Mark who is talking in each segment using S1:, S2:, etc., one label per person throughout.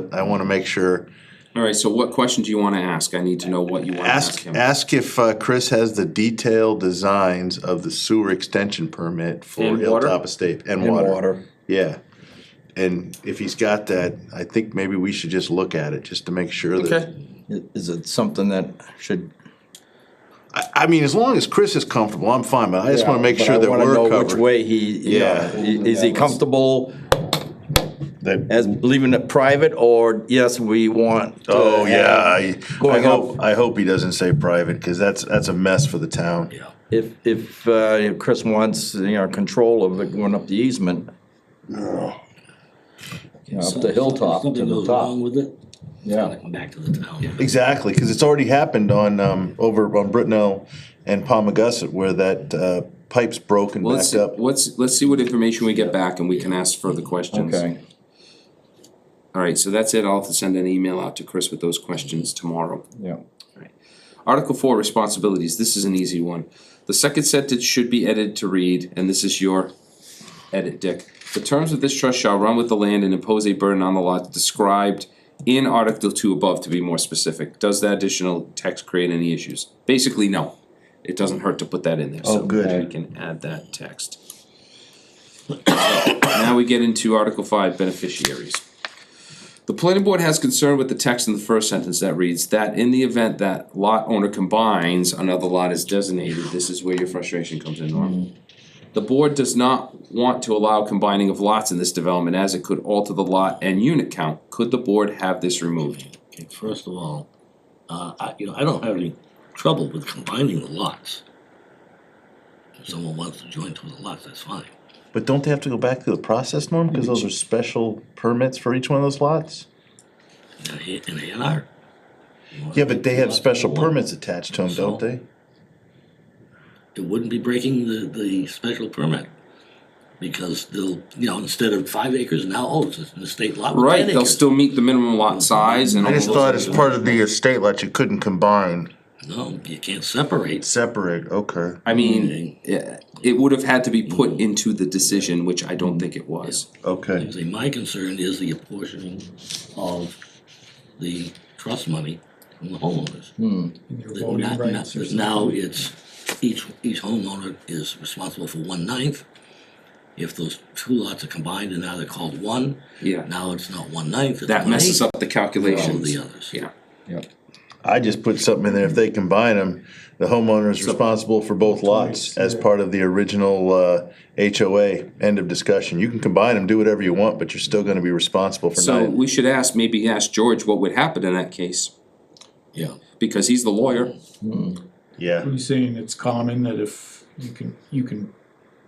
S1: but I wanna make sure.
S2: Alright, so what question do you wanna ask? I need to know what you wanna ask
S1: Ask,
S2: him.
S1: ask if uh, Chris has the detailed designs of the sewer extension permit for
S2: And water?
S1: Hilltop Estate and
S3: in
S1: water.
S3: water.
S1: Yeah. And if he's got that, I think maybe we should just look at it, just to make sure that.
S2: Okay,
S3: I- Is it something that should?
S1: I, I mean, as long as Chris is comfortable, I'm fine, but I just wanna make
S3: But I
S1: sure that
S3: wanna
S1: we're
S3: know
S1: covered.
S3: Which way he,
S1: Yeah.
S3: yeah, is he comfortable
S1: That-
S3: as leaving it private or yes, we want? to
S1: Oh
S3: have
S1: yeah, I, I
S3: Going
S1: hope
S3: up,
S1: I hope he doesn't say private because that's that's a mess for the town. Yeah.
S3: if, if, uh, if Chris wants, you know, control of it going up the easement. You know, up the hilltop to
S4: Something
S3: the
S4: goes
S3: top,
S4: wrong with it,
S3: yeah.
S4: come back to the town.
S1: Exactly, because it's already happened on um, over on Britnell and Palmagussit where that uh, pipe's broken
S2: well, let's,
S1: back up.
S2: let's, let's see what information we get back and we can ask further questions.
S3: Okay,
S2: Alright, so that's it. I'll have to send an email out to Chris with those questions tomorrow.
S3: yeah.
S2: Article four, responsibilities, this is an easy one. The second sentence should be edited to read, and this is your edit, Dick. The terms of this trust shall run with the land and impose a burden on the lot described in Article two above, to be more specific. Does that additional text create any issues? Basically, no. It doesn't hurt to put that in there, so
S1: good.
S2: we can add that text. Now we get into Article five, beneficiaries. The planning board has concern with the text in the first sentence that reads, that in the event that lot owner combines, another lot is designated, this is where your frustration comes in, Norm.
S1: Mm-hmm.
S2: The board does not want to allow combining of lots in this development as it could alter the lot and unit count, could the board have this removed?
S4: Okay, First of all, uh, I, you know, I don't have any trouble with combining the lots. If someone wants to join two of the lots, that's fine.
S1: But don't they have to go back through the process, Norm? Because those are special permits for each one of those lots.
S4: In a- In A and R.
S1: Yeah, but they have special
S4: One.
S1: permits attached to them, don't they?
S4: it wouldn't be breaking the, the special permit. Because they'll, you know, instead of five acres now, oh, it's an estate lot with
S2: Right,
S4: ten
S2: they'll
S4: acres.
S2: still meet the minimum lot size and all
S1: I
S2: those.
S1: just thought as part of the estate lot, you couldn't combine,
S4: No, you can't separate.
S1: separate. Okay.
S2: I mean,
S4: Mm-hmm.
S2: yeah, it would have had to be put into the decision, which I don't think it was.
S1: Okay.
S4: See, my concern is the apportioning of the trust money from the homeowners.
S2: Hmm.
S4: That not- not- that Now it's, each, each homeowner is responsible for one ninth. If those two lots are combined and now they're called one,
S2: Yeah,
S4: now it's not one ninth, it's
S2: that
S4: one
S2: messes
S4: eighth.
S2: up the
S4: All of
S2: calculations.
S4: the others.
S2: Yeah,
S1: I just put something in there. If they combine them, the homeowner is responsible for both lots as part of the original uh, HOA. End of discussion. You can combine them, do whatever you want, but you're still going to be responsible for
S2: so
S1: nine.
S2: we should ask, maybe ask George what would happen in that case,
S4: Yeah.
S2: because he's the lawyer.
S1: Yeah.
S5: He's saying it's common that if you can, you can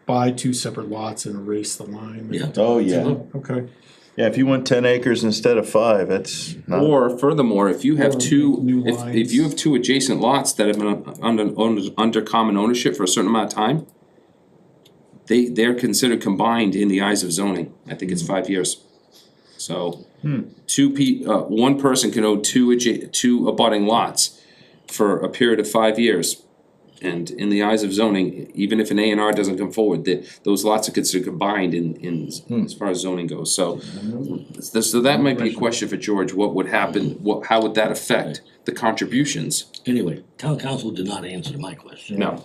S5: buy two separate lots and erase the line.
S4: Yeah.
S1: Oh yeah.
S5: Oh, Okay.
S1: Yeah. If you want ten acres instead of five, that's not.
S2: Or furthermore, if you have
S5: Or
S2: two,
S5: new
S2: if, if
S5: lines.
S2: you have two adjacent lots that have been under, under, under common ownership for a certain amount of time, they, they're considered combined in the eyes of zoning, I think
S5: Hmm.
S2: it's five years. So, two pe, uh, one person can own two adja, two abutting lots for a period of five years. And in the eyes of zoning, even if an A and R doesn't come forward, that, those lots are considered combined in,
S5: Hmm.
S2: in, as far as zoning goes, so. So so that might be a question for George, what would happen, what, how would that affect the contributions?
S4: Anyway, town council did not answer my question.
S2: No,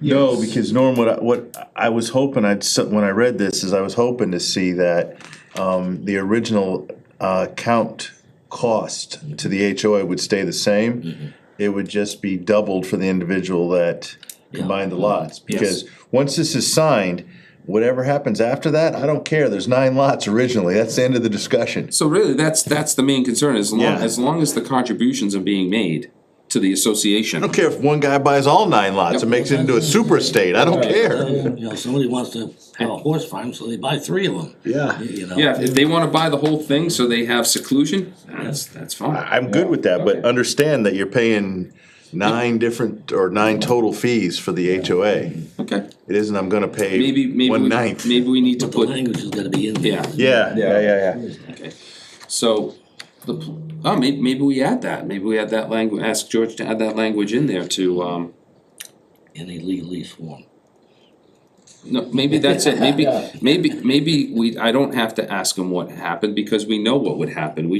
S1: No, because Norm, what I, what I was hoping I'd s- when I read this is I was hoping to see that um, the original uh, count cost to the HOA would stay the same. It would just be doubled for the individual that combined the lots. Because once this is signed, whatever happens after that, I don't care. There's nine lots originally. That's the end of the discussion.
S2: so really, that's, that's the main concern, as long,
S1: Yeah.
S2: as long as the contributions are being made to the association.
S1: I don't care if one guy buys all nine lots and makes it into a super estate. I don't care.
S4: You know, somebody wants to have a horse farm, so they buy three of them.
S1: Yeah.
S4: You know?
S2: Yeah, if they wanna buy the whole thing, so they have seclusion, that's, that's fine.
S1: I'm good with that, but understand that you're paying nine different or nine total fees for the HOA. It
S2: Okay,
S1: isn't, I'm gonna
S2: maybe,
S1: pay
S2: maybe,
S1: one
S2: we-
S1: ninth.
S2: maybe we need to
S4: But the
S2: put,
S4: language has gotta be in there.
S2: yeah,
S1: Yeah, yeah, yeah, yeah.
S2: so, the, pl- oh, may, maybe we add that, maybe we add that language, ask George to add that language in there to, um,
S4: In a legally form.
S2: No, maybe that's it, maybe, maybe, maybe we, I don't have to ask them what happened, because we know what would happen, we